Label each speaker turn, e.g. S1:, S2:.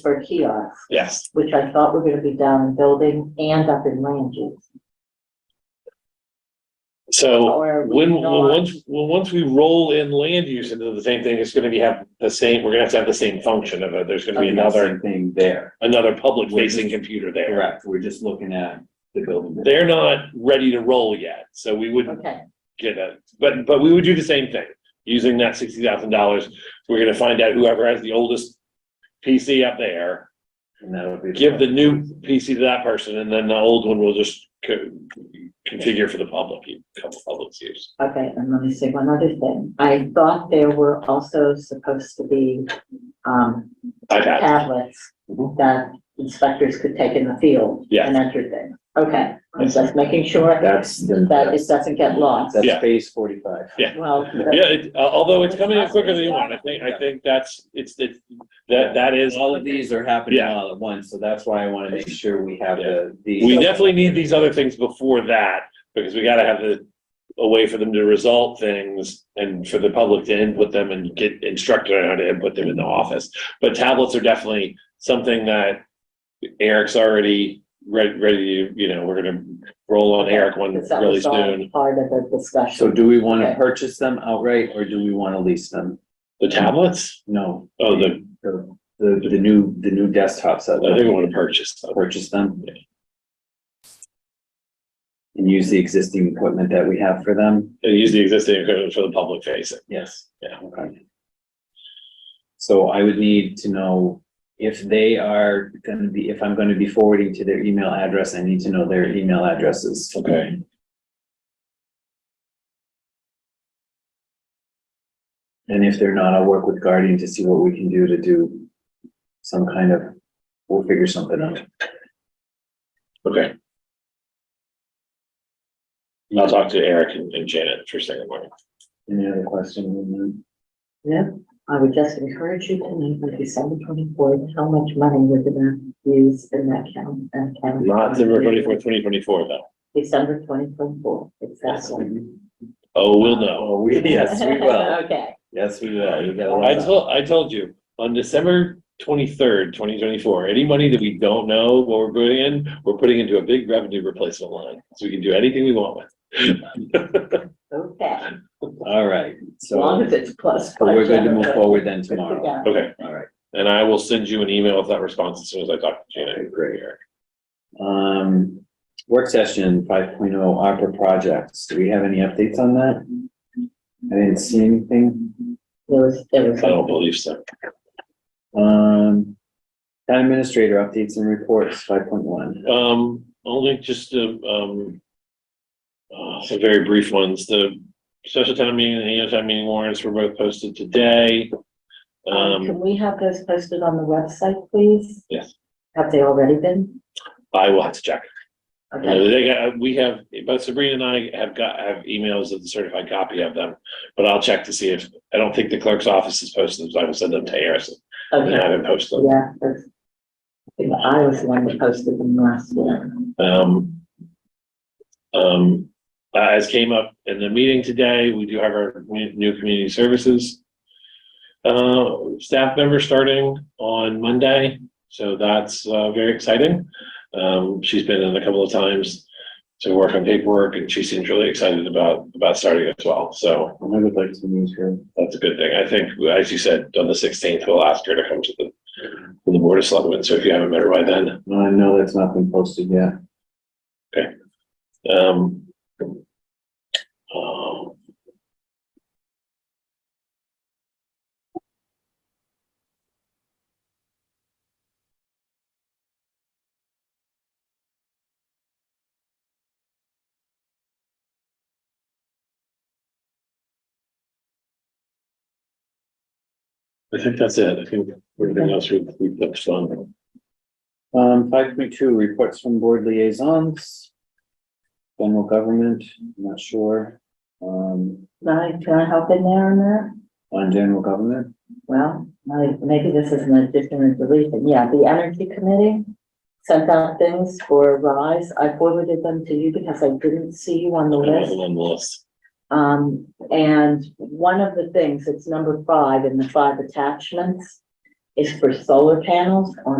S1: for kiosks,
S2: Yes,
S1: which I thought were gonna be down in building and up in land use.
S2: so
S1: Or we
S2: when, when,
S1: not-
S2: once, well, once we roll in land use into the same thing, it's gonna be have the same, we're gonna have to have the same function of it. There's gonna be
S3: Same
S2: another,
S3: Thing there,
S2: another public facing computer there.
S3: correct, we're just looking at the building.
S2: They're not ready to roll yet, so we wouldn't
S1: Okay,
S2: get a, but, but we would do the same thing. Using that sixty thousand dollars, we're gonna find out whoever has the oldest PC up there.
S3: And that would be.
S2: give the new PC to that person and then the old one will just co- configure for the public, couple public's use.
S1: okay, and let me say one other thing. I thought there were also supposed to be, um,
S2: iPad.
S1: tablets
S2: Mhm.
S1: that inspectors could take in the field
S2: Yes.
S1: and enter things. Okay, I'm just making sure
S3: That's. the-
S1: that it doesn't get lost.
S3: That's
S2: Yeah.
S3: phase forty-five.
S1: Well,
S2: Yeah, it- uh, although it's coming in quicker than you want, I think, I think that's, it's, it's, that, that is,
S3: All of these are happening
S2: Yeah.
S3: all at once, so that's why I wanna make sure we have the, the.
S2: we definitely need these other things before that, because we gotta have the, a way for them to result things and for the public to input them and get instructed on how to input them in the office. But tablets are definitely something that Eric's already ready, ready, to, you know, we're gonna roll on Eric one
S1: Because that
S2: really
S1: was all
S2: soon.
S1: Part of the
S3: So
S1: discussion.
S3: do we wanna
S1: Okay.
S3: purchase them outright, or do we wanna lease them?
S2: The tablets?
S3: No.
S2: Oh, the,
S3: The, the, the new, the new desktops that.
S2: I think I wanna purchase. them.
S3: purchase them. And use the existing equipment that we have for them?
S2: And use the existing equipment for the public facing.
S3: Yes.
S2: Yeah.
S3: Okay. So I would need to know if they are gonna be, if I'm gonna be forwarding to their email address, I need to know their email addresses.
S2: Okay.
S3: And if they're not, I'll work with Guardian to see what we can do to do some kind of, we'll figure something out.
S2: Okay. And I'll talk to Eric and and Janet first thing in the morning.
S3: Any other question?
S1: I would just encourage you to meet with December twenty-fourth, how much money we're gonna use in that count, that count.
S2: Not December twenty-fourth, twenty twenty-four though.
S1: December twenty twenty-four, exactly.
S2: Oh, we'll know.
S3: Oh, we, yes, we will.
S1: Okay,
S3: Yes, we will. You gotta
S2: I
S3: love that.
S2: told, I told you, on December twenty-third, twenty twenty-four, any money that we don't know what we're putting in, we're putting into a big revenue replacement line. So we can do anything we want with.
S1: okay,
S3: All right,
S1: as long
S3: so
S1: as it's plus.
S3: uh, but we're going to move
S1: budget.
S3: forward then tomorrow.
S1: Yeah.
S2: Okay,
S3: All right,
S2: and I will send you an email with that response as soon as I talk to Janet.
S3: Okay, great. Um, work session five ARPA projects. Do we have any updates on that? I didn't see anything.
S1: There was, there was.
S2: I don't believe so.
S3: Um, town administrator updates and reports, five point one.
S2: Um, only just, uh, um, uh, some very brief ones. The special town meeting and the annual town meeting warrants were both posted today.
S1: Um, Can
S2: Um,
S1: we have those posted on the website, please?
S2: Yes.
S1: Have they already been?
S2: I will have to check. Uh,
S1: Okay,
S2: They got, we have, both Sabrina and I have got, have emails of the certified copy of them, but I'll check to see if, I don't think the clerk's office has posted them, so I will send them to Harrison. And
S1: okay,
S2: have him post them.
S1: yeah, that's. I think I was the one that posted them last year.
S2: Um, um, uh, as came up in the meeting today, we do have our new new community services uh, staff member starting on Monday, so that's uh, very exciting. Um, she's been in a couple of times to work on paperwork, and she seems really excited about about starting as well. So
S3: I would like to meet her.
S2: that's a good thing. I think, as you said, on the sixteenth, we'll ask her to come to the to the board of selectmen. So if you haven't met her by then,
S3: No, I know that's not been posted yet.
S2: Um. um, I think that's it. I think everything else we, we touched on.
S3: Um, five point two, reports from board liaisons. General government, not sure. Um,
S1: Can I, can I help in there on that?
S3: on general government,
S1: Well, my- maybe this is an addition or deletion. Yeah, the energy committee sent out things for Rise. I forwarded them to you because I didn't see you on the
S2: I
S1: list.
S2: wasn't on the list.
S1: Um, and one of the things, it's number five in the five attachments, is for solar panels on